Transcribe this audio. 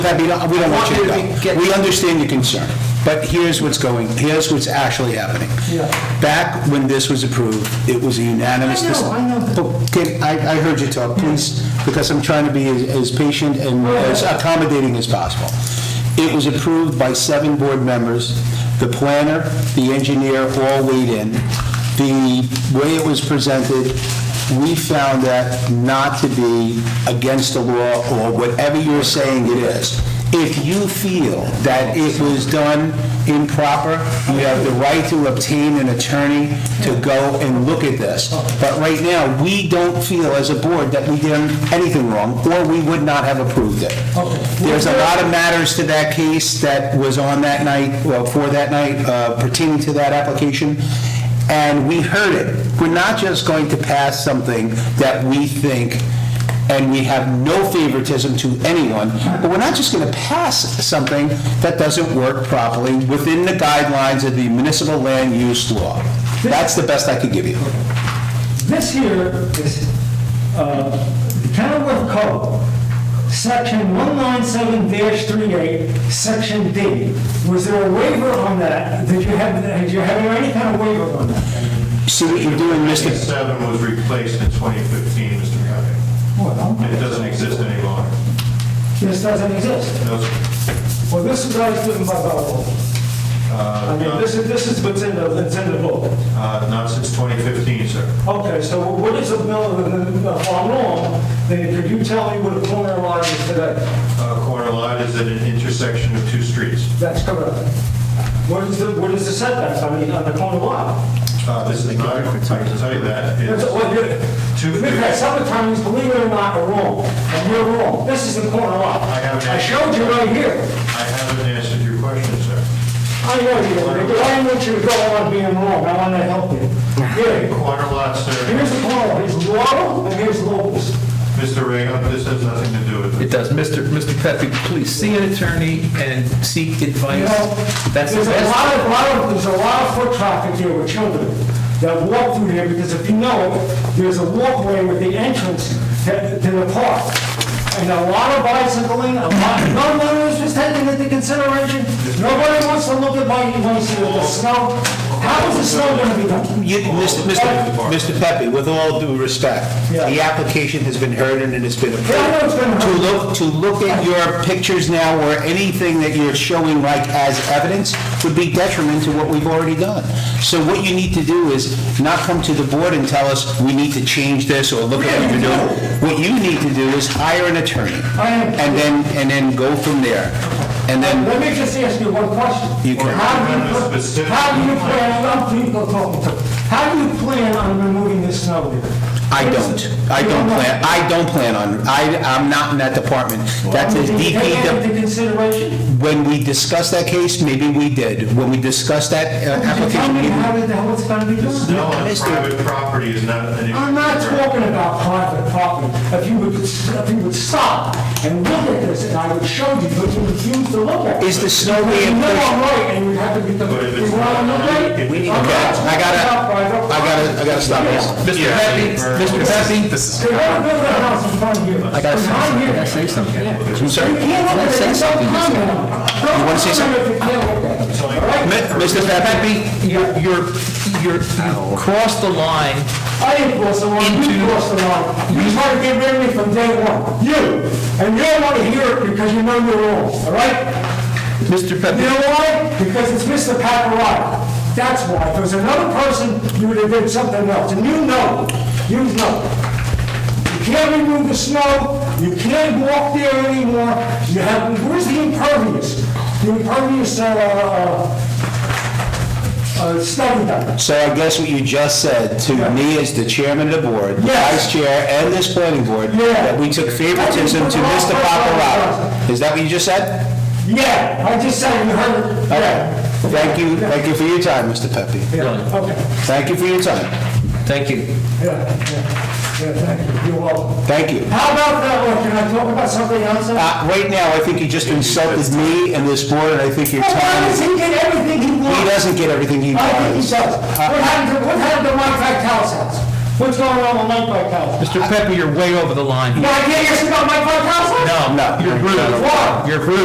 That'd be, we don't want you I want you to to go. get- We understand your concern, but here's what's going, here's what's actually happening. Yeah. Back when this was approved, it was a unanimous. I know, I know that. But, Can, I, I heard you talk, please, because I'm trying to be as- as patient and as accommodating as possible. It was approved by seven board members, the planner, the engineer all weighed in. The way it was presented, we found that not to be against the law or whatever you're saying it is. If you feel that it was done improper, you have the right to obtain an attorney to go and look at this. But right now, we don't feel as a board that we did anything wrong, or we would not have approved it. There's a lot of matters to that case that was on that night, well, for that night, uh, pertaining to that application, and we heard it. We're not just going to pass something that we think and we have no favoritism to anyone, but we're not just going to pass something that doesn't work properly within the guidelines of the municipal land use law. That's the best I could give you. This here is uh, the Kenilworth Code, Section 197-38, Section D. Was there a waiver on that? Did you have, did you have any kind of waiver on that? See what you're doing, Mr. 1997 was replaced in 2015, Mr. Cuddy. It Well, doesn't exist any longer. this doesn't exist. No, sir. Well, this is what I put in my Bible. I mean, this is, this is what's in the, that's in the book. Uh, Not since 2015, sir. Okay, so what is a mill, if I'm wrong, then could you tell me what a preliminary lot is today? Uh, Corner lot is at an intersection of two streets. That's correct. What is the, what is the setback, I mean, on the corner lot? Uh, This is not, I can tell you that. That's It's- what you, Two- because some attorneys, believe it or not, are wrong, and you're wrong. This is the corner lot. I haven't I showed you right here. I haven't answered your question, sir. I know you, did, but I want you to go on being wrong, I want to help you. Here, Corner lot, sir, here's the corner, lot. here's Laurel, and here's Locust. Mr. Reagan, this has nothing to do with It it. does. Mr. Mr. Pepe, please see an attorney and seek You advice. know, That's there's the a best. lot of, lot of, there's a lot of foot traffic here with children that walk through here, because if you know, there's a walkway with the entrance to to the park. And a lot of bicycling, a lot, nobody was just taking into consideration, nobody wants to look at my, wants to look at the snow. How is the snow gonna be done? You- Mr. Mr. Mr. Pepe, with all due respect, the application has been heard and it has been Yeah, I know it's approved. been heard. To look, to look at your pictures now or anything that you're showing like as evidence would be detriment to what we've already done. So what you need to do is not come to the board and tell us, we need to change this or look at what you're doing. What you need to do is hire an attorney. I am. And then, and then go from there. And then, Let me just ask you one question. You can- How do you, put- how do you plan, I'm people talking to, how do you plan on removing the snow there? I don't, I You don't know. plan, I don't plan on, I, I'm not in that department. That's a Did you take DPW. that into consideration? When we discussed that case, maybe we did. When we discussed that uh, Did you tell application, me maybe- how the hell it's gonna be done? No, on private property is not an issue. I'm not sir. talking about private property. If you would, if you would stop and look at this, and I would show you, but you refuse to look at it. Is the snow Because being You know pushed- I'm right, and you have to get the, But if you it's want not- to look at it? We need- I'm Okay, not I gotta, talking about private I gotta, I gotta stop this. Mr. Yeah. Pepe, Mr. Pepe, this is. property. They don't build a house in front of you. I I say something. You can't look at it, don't comment on it. Don't wanna say comment if you can't look at it. All right? Mr. Pepe? Pepe, you're, you're, you're, you crossed the line. I didn't cross the line, you Into- crossed the line. You tried to get rid of me from day one, you. And you don't want to hear it because you know you're wrong, all right? Mr. You Pepe, know why? Because it's Mr. Paparotto. That's why. If it was another person, you would have did something else, and you know, you know. You can't remove the snow, you can't walk there anymore, you have, where's the impervious? The impervious, uh, uh, uh, study done. So I guess what you just said to me as the chairman of the board, the Yes. vice chair, and this planning board, Yeah. that we took favoritism to Mr. Paparotta. Is that what you just said? Yeah, I just said, you heard, it. Okay. yeah. Thank you, thank you for your time, Mr. Pepe. Yeah, okay, Thank you for your time. thank you. yeah, yeah, yeah, thank you, you're welcome. Thank you. How about that one, can I talk about something else? Why Uh, Right now, I think you just insulted me and this board, and I think your time, does he get everything he he wants? doesn't get everything he I think he wants. does. What happened to, what happened to Mike Vitale's house? What's going on with Mike Vitale? Mr. Pepper, you're way over the line. Now, I can't ask you about Mike Vitale? No, No. you're rude. Why? You're rude.